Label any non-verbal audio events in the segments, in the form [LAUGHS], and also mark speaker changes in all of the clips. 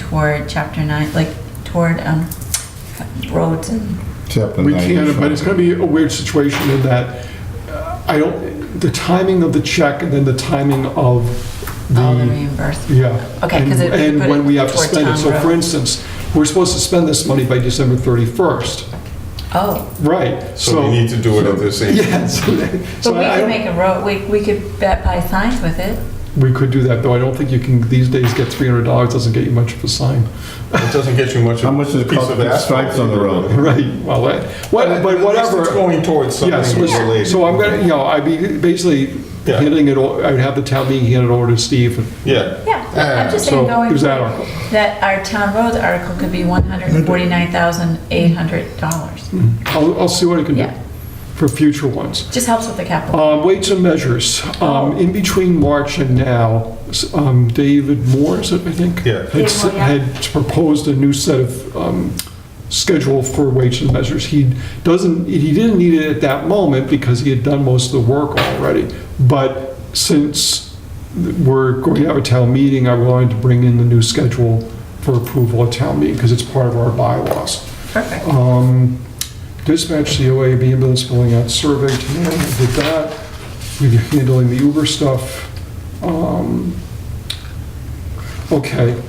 Speaker 1: toward chapter nine, like toward um, roads and,
Speaker 2: Chapter
Speaker 3: We
Speaker 2: 95.
Speaker 3: can, but it's going to be a weird situation in that uh, I don't, the timing of the check and then the timing of
Speaker 1: all Oh, the
Speaker 3: the,
Speaker 1: reimbursement.
Speaker 3: yeah.
Speaker 1: Okay, 'cause
Speaker 3: And-
Speaker 1: it- we
Speaker 3: And
Speaker 1: put
Speaker 3: when
Speaker 1: it
Speaker 3: we have to
Speaker 1: toward
Speaker 3: spend it.
Speaker 1: town
Speaker 3: So for
Speaker 1: road.
Speaker 3: instance, we're supposed to spend this money by December 31st.
Speaker 1: Oh,
Speaker 3: Right,
Speaker 4: So we
Speaker 3: so,
Speaker 4: need to do it at the
Speaker 3: [LAUGHS]
Speaker 4: same.
Speaker 3: yeah, so that-
Speaker 1: but
Speaker 3: so
Speaker 1: we
Speaker 3: I
Speaker 1: could
Speaker 3: don't,
Speaker 1: make a road, we, we could bet by signs with it.
Speaker 3: we could do that, though I don't think you can, these days, get $300 doesn't get you much of a sign. [LAUGHS]
Speaker 4: It doesn't get you much. of
Speaker 2: How much does it
Speaker 4: a piece
Speaker 2: cost
Speaker 4: of
Speaker 2: to put
Speaker 4: asphalt
Speaker 2: stripes on the
Speaker 4: either,
Speaker 2: road?
Speaker 4: really.
Speaker 3: Right, well, that- what- but
Speaker 4: At least
Speaker 3: whatever.
Speaker 4: It's going towards
Speaker 3: Yes,
Speaker 4: something related.
Speaker 3: so I'm gonna, you know, I'd be basically
Speaker 4: Yeah.
Speaker 3: handing it, o- I'd have the town meeting hand it over to Steve. and-
Speaker 4: Yeah.
Speaker 1: Yeah, I'm just
Speaker 3: So
Speaker 1: saying going.
Speaker 3: there's that article.
Speaker 1: That our town roads article could be one hundred and forty-nine thousand eight hundred dollars.
Speaker 3: I'll, I'll see what I can do
Speaker 1: Yeah.
Speaker 3: for future ones.
Speaker 1: Just helps with the capital.
Speaker 3: Um, Weights and measures, Um, in between March and now, s- um, David Moore, is it, I think?
Speaker 4: Yeah.
Speaker 3: Had,
Speaker 1: David Moore, yeah.
Speaker 3: had proposed a new set of um, schedule for weights and measures. He doesn't, he didn't need it at that moment because he had done most of the work already. But since we're going to have a town meeting, I wanted to bring in the new schedule for approval at town meeting because it's part of our bylaws.
Speaker 1: Perfect.
Speaker 3: Um, Dispatch, COA, ambulance filling out survey tonight, we did that. We're handling the Uber stuff. Um, Okay.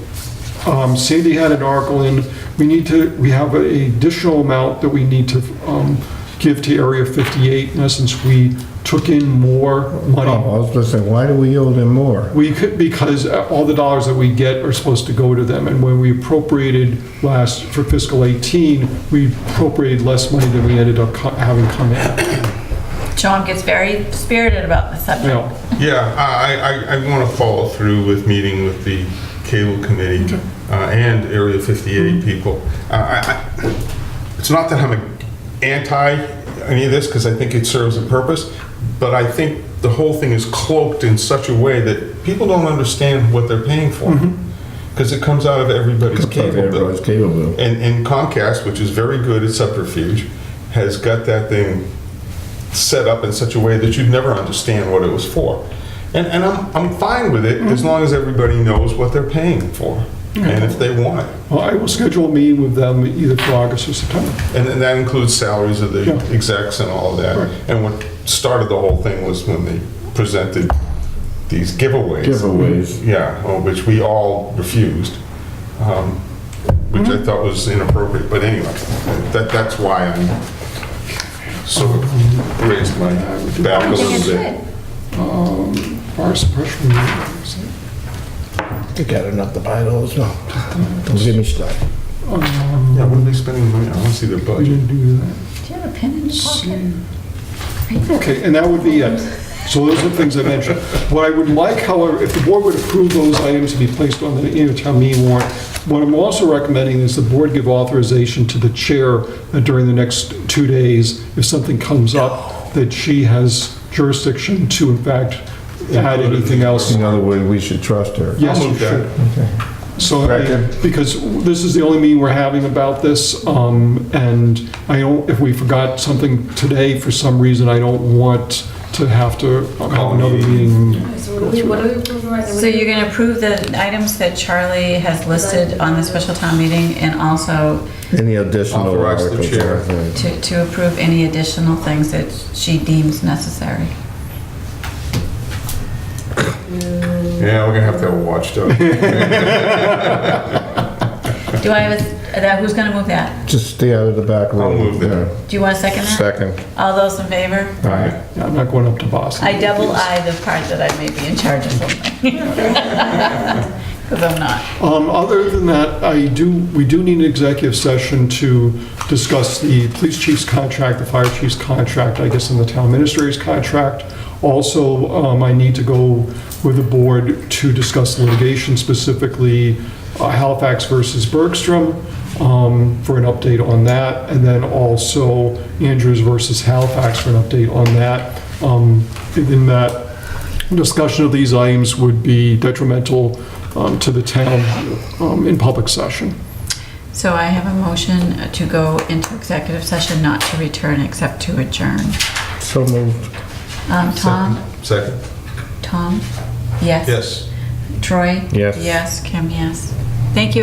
Speaker 3: Um, Sandy had an article in, we need to, we have an additional amount that we need to um, give to Area 58. In essence, we took in more
Speaker 2: Oh,
Speaker 3: money
Speaker 2: I was going to say, why do we owe them more?
Speaker 3: we could, because uh, all the dollars that we get are supposed to go to them, and when we appropriated last, for fiscal 18, we appropriated less money than we ended up co- having come in. Uh,
Speaker 1: John gets very spirited about the
Speaker 3: You
Speaker 1: subject.
Speaker 3: know,
Speaker 4: Yeah, I, I, I want to follow through with meeting with the cable committee uh, and Area
Speaker 2: Mm-hmm.
Speaker 4: 58 people. Uh, I- I- It's not that I'm anti any of this, because I think it serves a purpose, but I think the whole thing is cloaked in such a way that people don't understand what they're paying for.
Speaker 2: Mm-hmm.
Speaker 4: Because it comes out of everybody's cable bill.
Speaker 2: Everybody's capable.
Speaker 4: And, and Comcast, which is very good at subterfuge, has got that thing set up in such a way that you'd never understand what it was for. And, and I'm, I'm fine with it as long as everybody knows what they're paying for and if they want it.
Speaker 3: Well, I will schedule a meeting with them either for August or September.
Speaker 4: And, and that includes salaries of the
Speaker 3: Yeah.
Speaker 4: execs and all of that.
Speaker 3: Right.
Speaker 4: And what started the whole thing was when they presented these giveaways.
Speaker 2: Giveaways.
Speaker 4: Yeah, well, which we all refused, um, which I thought was inappropriate, but anyway, that, that's why I'm sort of raised my back a
Speaker 1: I think
Speaker 4: little
Speaker 1: it's
Speaker 4: bit.
Speaker 1: good.
Speaker 3: Um, Fire suppression.
Speaker 2: You got enough to buy those, no? Don't get me started.
Speaker 3: um,
Speaker 4: Yeah, what are they spending money on? I want to see their
Speaker 3: We
Speaker 4: budget.
Speaker 3: didn't do that.
Speaker 1: Do you have a pen in your pocket?
Speaker 3: Okay, and that would be it. So those are the things I mentioned. What I would like, however, if the board would approve those items to be placed on the annual town meeting warrant, what I'm also recommending is the board give authorization to the chair that during the next two days, if something comes up, that she has jurisdiction to in fact add anything else.
Speaker 2: In other words, we should trust her.
Speaker 3: Yes,
Speaker 4: I'll
Speaker 3: you
Speaker 4: move that.
Speaker 3: should. So, I-
Speaker 2: Second.
Speaker 3: because this is the only meeting we're having about this, um, and I don't, if we forgot something today for some reason, I don't want to have to have another meeting.
Speaker 5: So what are we, what are we approving right now?
Speaker 1: So you're gonna approve the items that Charlie has listed on the special town meeting and also
Speaker 2: Any additional
Speaker 4: Authorize the
Speaker 2: articles?
Speaker 4: chair.
Speaker 2: or
Speaker 1: to,
Speaker 2: anything?
Speaker 1: to approve any additional things that she deems necessary.
Speaker 4: Yeah, we're gonna have to have a watchdog. [LAUGHS]
Speaker 1: Do I have a, that, who's gonna move that?
Speaker 2: Just stay out of the back room.
Speaker 4: move that.
Speaker 1: Do you want a second that?
Speaker 2: Second.
Speaker 1: All those in favor?
Speaker 2: All right.
Speaker 3: Yeah, I'm not going up to Boston.
Speaker 1: I double eye the part that I may be in charge of something. [LAUGHS] Because I'm not.
Speaker 3: Um, Other than that, I do, we do need an executive session to discuss the police chief's contract, the fire chief's contract, I guess, and the town administrator's contract. Also, um, I need to go with the board to discuss litigation, specifically uh, Halifax versus Bergstrom, um, for an update on that, and then also Andrews versus Halifax for an update on that. Um, In that, discussion of these items would be detrimental um, to the town um, in public session.
Speaker 1: So I have a motion to go into executive session, not to return except to adjourn.
Speaker 2: So moved.
Speaker 1: Um, Tom?
Speaker 4: Second?
Speaker 1: Tom? Yes?
Speaker 4: Yes.
Speaker 1: Troy?
Speaker 2: Yes.
Speaker 1: Yes, Kim, yes. Thank you,